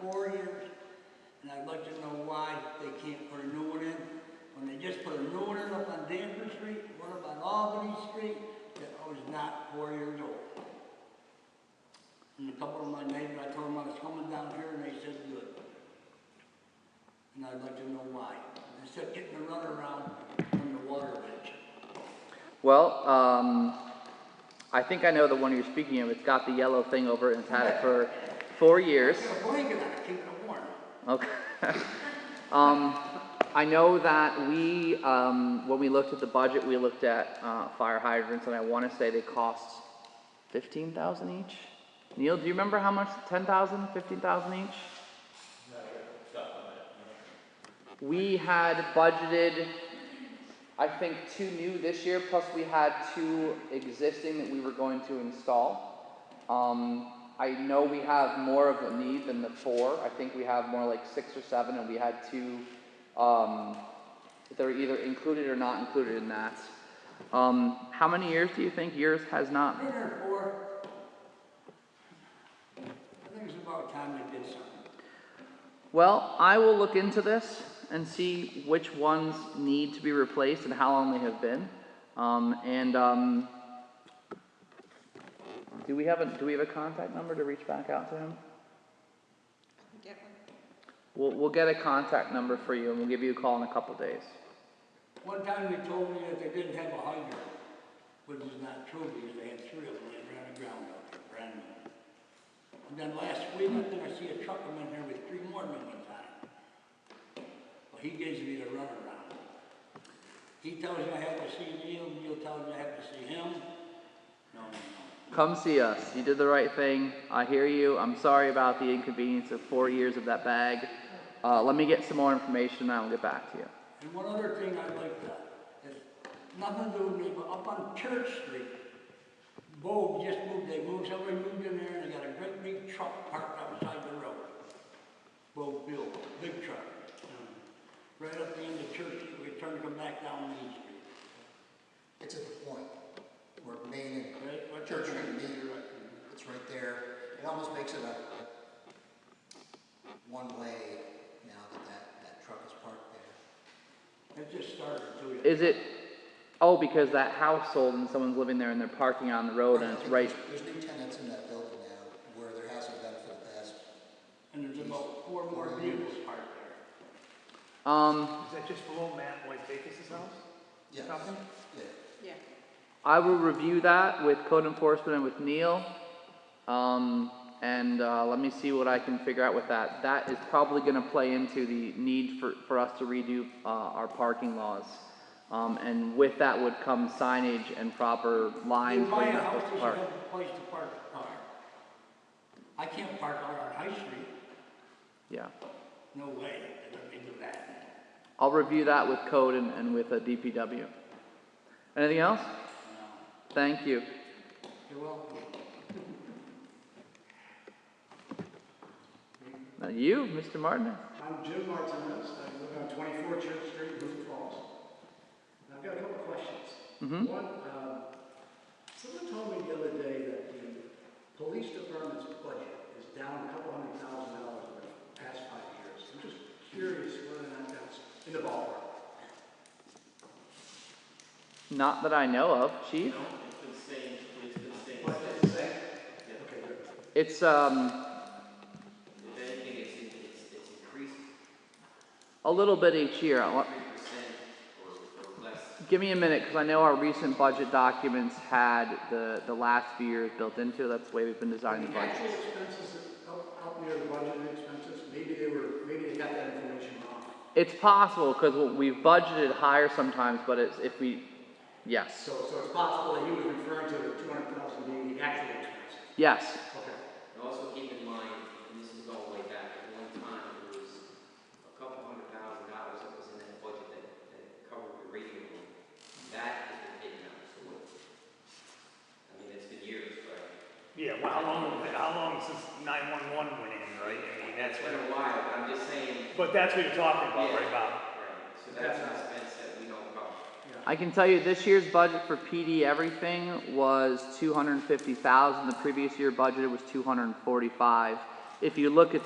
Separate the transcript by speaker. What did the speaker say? Speaker 1: four years, and I'd like to know why they can't put a new one in. When they just put a new one in up on Danvers Street, one up on Albany Street, that was not four years old. And a couple of my neighbors, I told them I was coming down here, and they said, good. And I'd like to know why, instead of getting a runaround from the water ditch.
Speaker 2: Well, um, I think I know the one you're speaking of. It's got the yellow thing over it and it's had it for four years.
Speaker 1: Get a blanket on it, keep it warm.
Speaker 2: Okay. um, I know that we, um, when we looked at the budget, we looked at uh, fire hydrants, and I want to say they cost fifteen thousand each. Neil, do you remember how much? Ten thousand, fifteen thousand each? We had budgeted, I think, two new this year, plus we had two existing that we were going to install. Um, I know we have more of a need than the four. I think we have more like six or seven, and we had two, um, that are either included or not included in that. Um, how many years do you think yours has not?
Speaker 1: Been here for, I think it's about time they did something.
Speaker 2: Well, I will look into this and see which ones need to be replaced and how long they have been. Um, and, um, do we have a, do we have a contact number to reach back out to him?
Speaker 3: Get one.
Speaker 2: We'll, we'll get a contact number for you and we'll give you a call in a couple days.
Speaker 1: One time they told me that they didn't have a hydrant, which is not true because they had three of them laying around the ground out there, brand new. And then last week, I think I see a truck come in here with three more than one time. Well, he gives me the runaround. He tells me I have to see Neil, Neil tells me I have to see him. No, no, no.
Speaker 2: Come see us. You did the right thing. I hear you. I'm sorry about the inconvenience of four years of that bag. Uh, let me get some more information and I'll get back to you.
Speaker 1: And one other thing I'd like to, it's nothing to do with me, but up on Church Street, Bob just moved, they moved, somebody moved in there and they got a great big truck parked outside the road. Bob Bill, big truck. you know, Right up the end of Church Street, we turned to come back down Main Street.
Speaker 4: It's at the point where Main
Speaker 1: Right, what
Speaker 4: and Church
Speaker 1: you're
Speaker 4: and
Speaker 1: right.
Speaker 4: Main, it's right there. It almost makes it a one-way now that that, that truck is parked there.
Speaker 1: It just started to.
Speaker 2: Is it? Oh, because that house sold and someone's living there and they're parking on the road and it's Oh, right.
Speaker 4: There's new tenants in that building now where there hasn't been for the past,
Speaker 1: And there's about four more vehicles parked there.
Speaker 2: Um,
Speaker 5: Is that just below Matt White Bacus's house?
Speaker 4: yeah,
Speaker 5: Something?
Speaker 4: yeah.
Speaker 3: Yeah.
Speaker 2: I will review that with code enforcement and with Neil. Um, and uh, let me see what I can figure out with that. That is probably going to play into the need for, for us to redo uh, our parking laws. Um, and with that would come signage and proper
Speaker 1: You
Speaker 2: lines where
Speaker 1: buy
Speaker 2: you're
Speaker 1: a
Speaker 2: not
Speaker 1: house,
Speaker 2: supposed
Speaker 1: you should
Speaker 2: to park.
Speaker 1: have a place to park the car. I can't park out on High Street,
Speaker 2: Yeah.
Speaker 1: no way, I don't need to do that.
Speaker 2: I'll review that with code and, and with a DPW. Anything else? Thank you.
Speaker 1: You're welcome.
Speaker 2: Now you, Mr. Martinez.
Speaker 6: I'm Jim Martinez, I live on 24 Church Street, Boone Falls. And I've got a couple of questions.
Speaker 2: Mm-hmm.
Speaker 6: One, um, someone told me the other day that the police department's budget is down a couple hundred thousand dollars over the past five years. I'm just curious whether or not that's in the ballpark.
Speaker 2: Not that I know of, Chief.
Speaker 6: But it's the same. Okay, good.
Speaker 2: It's, um,
Speaker 7: If anything, it's, it's, it's increased
Speaker 2: a little bit each year. I want-
Speaker 7: three percent or, or less.
Speaker 2: Give me a minute, because I know our recent budget documents had the, the last few years built into it. That's the way we've been designing the
Speaker 6: The
Speaker 2: budget.
Speaker 6: actual expenses up, up near the budget expenses, maybe they were, maybe they got that information wrong.
Speaker 2: It's possible, because we've budgeted higher sometimes, but it's, if we, yes,
Speaker 6: So, so it's possible that he was referring to the two hundred thousand being the actual expense.
Speaker 2: yes.
Speaker 6: Okay.
Speaker 7: And also keep in mind, and this is all the way back, at one time, there was a couple hundred thousand dollars that was in that budget that, that covered the radio room. That has been taken out, so what? I mean, it's been years, but
Speaker 8: Yeah, well, how long, how long since nine-one-one went in, right? I mean, that's
Speaker 7: it's
Speaker 8: what,
Speaker 7: been a while, but I'm just saying,
Speaker 8: but that's what you're talking about, right,
Speaker 7: Yeah.
Speaker 8: Bob?
Speaker 7: right, so that's an expense that we don't cover.
Speaker 2: I can tell you this year's budget for PD everything was two hundred and fifty thousand. The previous year budget was two hundred and forty-five. If you look at